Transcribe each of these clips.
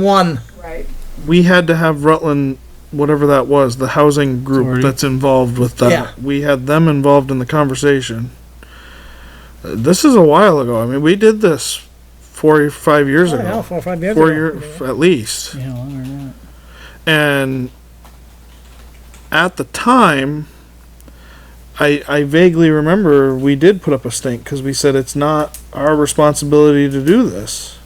one. Right. we had to have Rutland, whatever that was, the housing group Authority. that's involved with that. Yeah. We had them involved in the conversation. Uh, This is a while ago. I mean, we did this four or five years Oh, ago. hell, four or five years four ago. years at least. Yeah, longer than that. And at the time, I, I vaguely remember we did put up a stink because we said it's not our responsibility to do this.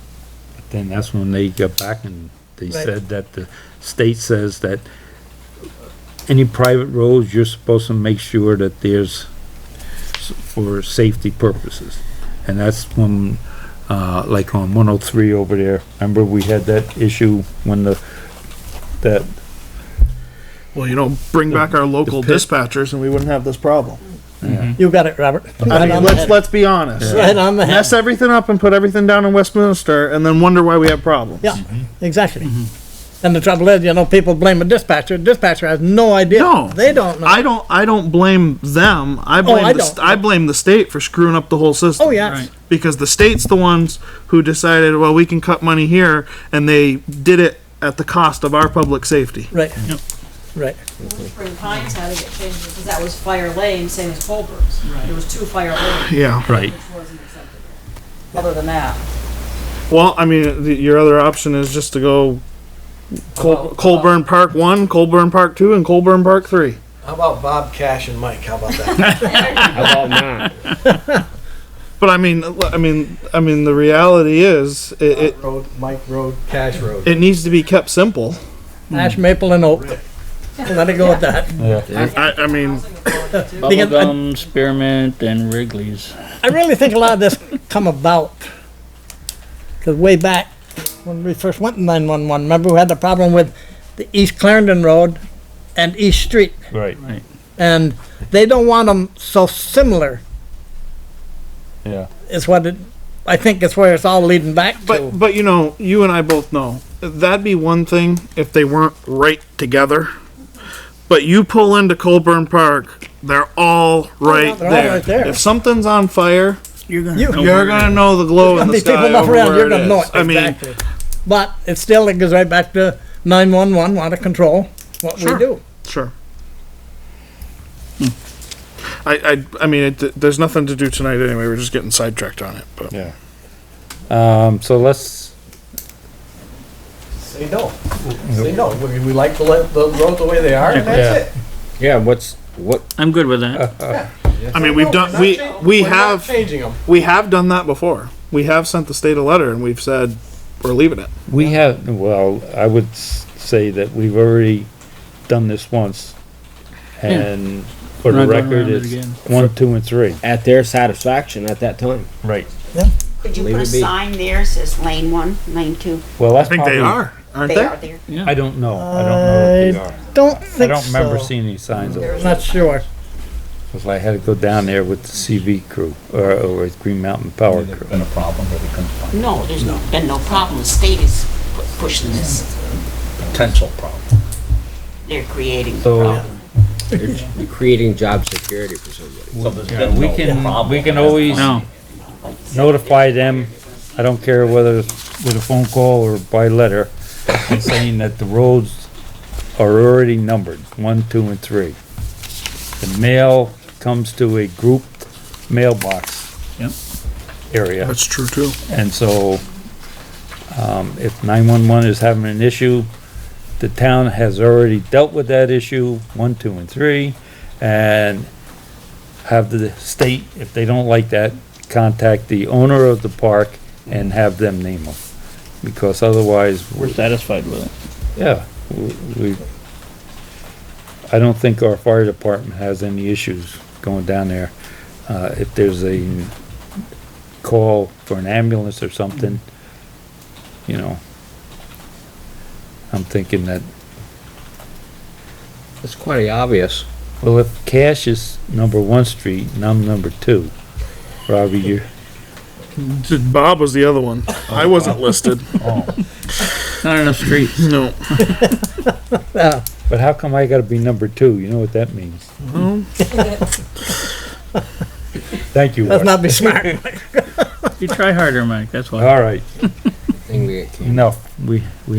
Then that's when they got back and they Right. said that the state says that any private roads, you're supposed to make sure that there's s- for safety purposes. And that's when, uh, like on one oh three over there, remember we had that issue when the, that Well, you know, bring back our local pit- dispatchers and we wouldn't have this problem. You got it, Robert. I Right mean, on the let's head. let's be honest. Right on the head. Mess everything up and put everything down in Westminster, and then wonder why we have problems. Yeah, exactly. And the trouble is, you know, people blame a dispatcher. Dispatcher has no idea. No. They don't know. I don't. I don't blame them. I blame. Oh, I the, st- don't. I blame the state for screwing up the whole system. Oh, yes. Right. Because the state's the ones who decided, well, we can cut money here, and they did it at the cost of our public safety. Right. Right. Spring Pines had to get changed because that was fire lane, same as Colbert's. There was two fire lanes, Yeah. Right. which wasn't acceptable. Other than that. Well, I mean, the, your other option is just to go. Col- uh, Colburn Park one, Colburn Park two, and Colburn Park three. How about Bob Cash and Mike? How about that? How about not? But I mean, I mean, I mean, the reality is, it, it, Bob Road, Mike Road, Cash Road. it needs to be kept simple. Ash, maple, and oak. Let it go with that. I, I mean, Because I- Bubblegum, spearmint, and Wrigley's. I really think a lot of this come about, because way back when we first went to 911, remember we had the problem with the East Clarendon Road and East Street, Right. and they don't want them so similar. Yeah. Is what it, I think it's where it's all leading back to. but but you know, you and I both know that'd be one thing if they weren't right together. But you pull into Colburn Park, they're all right, they're all there. right there. If something's on fire, You're gonna. You, you're gonna know the glow in gonna the be people sky enough over around, where you're it gonna know it, is. I mean, exactly. But it still, it goes right back to 911, want to control what we Sure. do. Sure. I, I, I mean, it, there's nothing to do tonight anyway. We're just getting sidetracked on it. But Yeah. Um, so let's, Say no. Say no. We, we like the, le- the road the way they are, and that's it. Yeah, what's, what, Uh, I'm good with that. I mean, we've done we we We're not have changing them. we have done that before. We have sent the state a letter and we've said we're leaving it. we have, well, I would s- say that we've already done this once. Hmm. And for the Not going record, around it it's again. one, two, and three. at their satisfaction at that time. Right. Could you Leave put a it be. sign there says lane one, lane two? Well, I that's think they probably- are, aren't They they? are there. I don't know. I don't know if they are. Don't I think don't remember so. seeing any signs of it. Not sure. Cause I had to go down there with the CV crew or, or with Green Mountain Power crew. Been a problem where they couldn't find No, there's no, been no problem. The state is pu- pushing this. potential problem. They're creating the So- problem. You're creating job security for somebody. Yeah, we can, we can always No, notify them. I don't care whether it's with a phone call or by letter, and saying that the roads are already numbered, one, two, and three. The mail comes to a grouped mailbox. Yep. Area. That's true too. And so, um, if nine-one-one is having an issue, the town has already dealt with that issue, one, two, and three, and have the state, if they don't like that, contact the owner of the park and have them name them. Because otherwise, we're satisfied with it. yeah, w- we, I don't think our fire department has any issues going down there. Uh, if there's a call for an ambulance or something, you know, I'm thinking that, It's quite obvious. well, if Cash is number one street and I'm number two, Robbie, you're, Bob was the other one. I wasn't listed. Not enough streets. No. but how come I gotta be number two? You know what that means? Thank you, Let's Art. not be smart. You try harder, Mike, that's why. All right, Thing we can't. enough. We, we